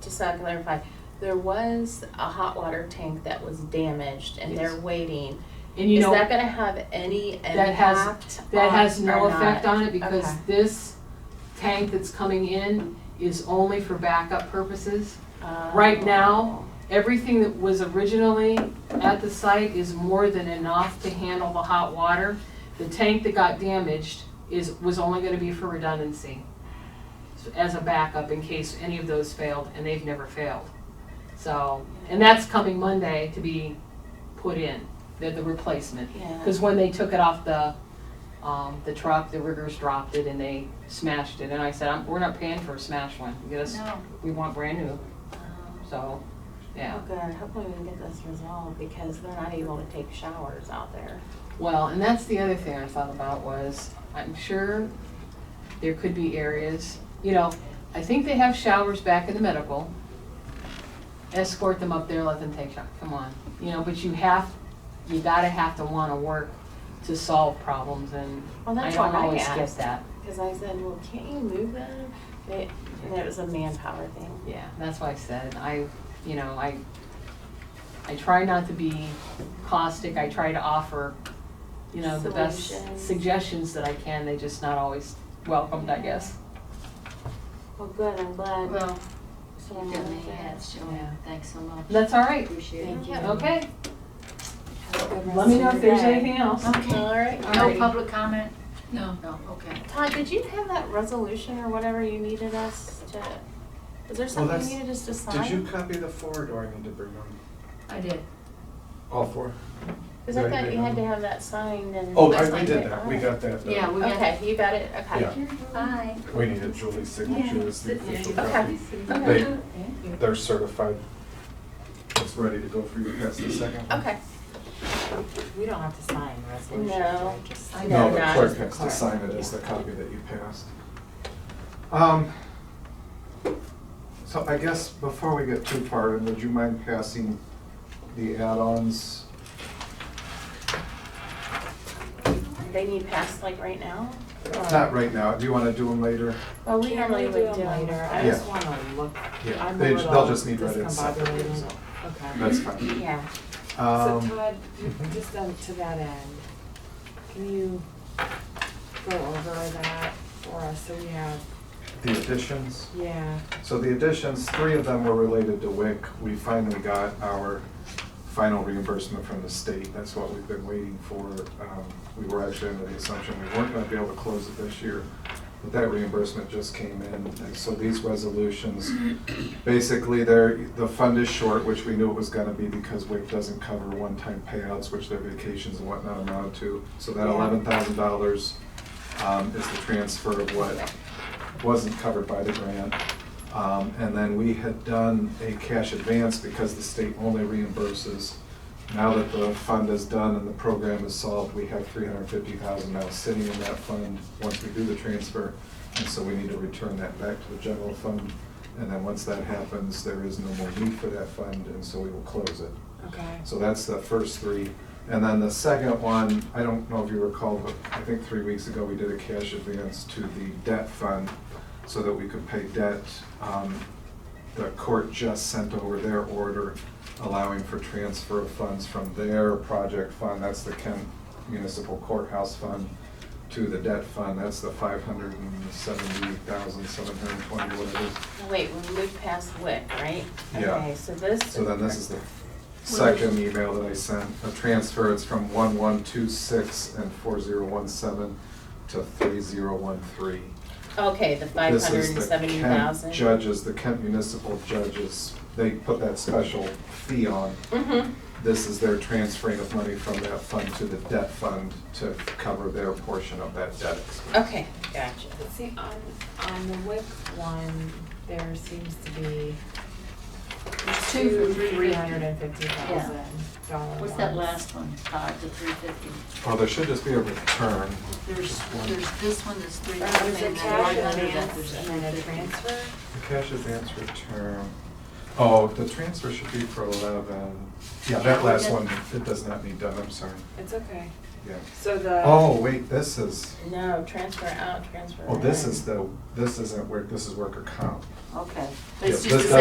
just so I can clarify, there was a hot water tank that was damaged and they're Yes. waiting. And you Is know, that gonna have any That has- impact that on- has no or not? effect on it because Okay. this tank that's coming in is only for backup purposes. Oh. Right now, everything that was originally at the site is more than enough to handle the hot water. The tank that got damaged is, was only gonna be for redundancy, so as a backup in case any of those failed, and they've never failed. So, and that's coming Monday to be put in, the, the replacement. Yeah, Because when they took it off the, um, the truck, the riggers dropped it and they smashed it. And I said, "I'm- we're not paying for a smashed one, get us, no, we want brand new, um, so, yeah. oh good, hopefully we can get this resolved because they're not able to take showers out there. Well, and that's the other thing I thought about was, I'm sure there could be areas, you know, I think they have showers back in the medical. Escort them up there, let them take showers, come on, you know, but you have, you gotta have to wanna work to solve problems and Well, I that's what don't I always get asked, that. cause I said, well, can't you move them? They, and it was a manpower thing. Yeah, that's why I said, I, you know, I, I try not to be caustic, I try to offer, you know, the best Solutions. suggestions that I can, they just not always welcomed, I guess. Well, good, I'm glad. Well, someone you've done looked the at it. ads, Yeah. Joanne, thanks so much. That's all right, Appreciate it. Thank you. okay, Have a good let rest me know of if your there's day. anything else. Okay, all right. No Alrighty. public comment? No. No, okay. Todd, did you have that resolution or whatever you needed us to, was there something that's- you needed us to sign? Did you copy the four, or do I need to bring them? I did. All four? Cause I Right, thought right, you had to um, have that signed and. Oh, I- we signed did it. that, we got that. done. Yeah, we got. Okay, you got it, okay. Yeah. Bye. We needed Julie's signature as the official Okay. copy. Okay. They, they're certified. It's ready to go for you, that's the second one. Okay, We don't have to sign resolutions. No. right? Just- I No, know, the not clerk just the has to clerk. sign it as the copy that you passed. Um, so I guess before we get too far, in, would you mind passing the add-ons? they need passed like right now? Not right now, do you wanna do them later? Well, we Can normally we do would do them later? later. I Yeah. just wanna look. Yeah, I'm a they, little they'll just need read in separately, discombobulated. so, Okay. that's fine. Yeah. So Um, Todd, you- just um, to that end, can you go over that for us so we have, the additions? yeah, So the additions, three of them were related to WIC. We finally got our final reimbursement from the state. That's what we've been waiting for. Um, We were actually under the assumption we weren't gonna be able to close it this year, but that reimbursement just came in. And so these resolutions, basically, they're, the fund is short, which we knew it was gonna be because WIC doesn't cover one-time payouts, which their vacations and whatnot amount to. So that Yeah. eleven thousand dollars um, is the transfer of what wasn't covered by the grant. Um, And then we had done a cash advance because the state only reimburses. Now that the fund is done and the program is solved, we have three hundred fifty thousand now sitting in that fund once we do the transfer. And so we need to return that back to the general fund. And then once that happens, there is no more need for that fund, and so we will close it. okay. So that's the first three. And then the second one, I don't know if you recall, but I think three weeks ago, we did a cash advance to the debt fund so that we could pay debt. Um, The court just sent over their order allowing for transfer of funds from their project fund, that's the Kent Municipal Courthouse Fund, to the debt fund, that's the five hundred and seventy thousand, seven hundred and twenty, whatever. it is. Wait, we moved past WIC, right? Yeah. Okay, so this. So then this is the second email that I sent, a transfer, it's from one one two six and four zero one seven to three zero one three. Okay, the five This hundred is and the seventy Kent thousand. Judges, the Kent municipal judges, they put that special fee on. Mm-hmm, This is their transferring of money from that fund to the debt fund to cover their portion of that debt. okay, gotcha. But see, on, on the WIC one, there seems to be two, three hundred and fifty thousand dollar What's that last one, Todd, the three fifty? Oh, there should just be a return. There's, Just one. there's this one, that's three Uh, There's fifty, a and then cash right under that, advance there's a and then a three fifty. transfer. The cash advance return, oh, the transfer should be for eleven. Yeah, that last one, it does not need done, I'm sorry, It's okay. yeah. So the. Oh, wait, this is, No, transfer out, transfer oh, this in. is the, this isn't work, this is worker comp. Okay, Yeah, it's this just the does-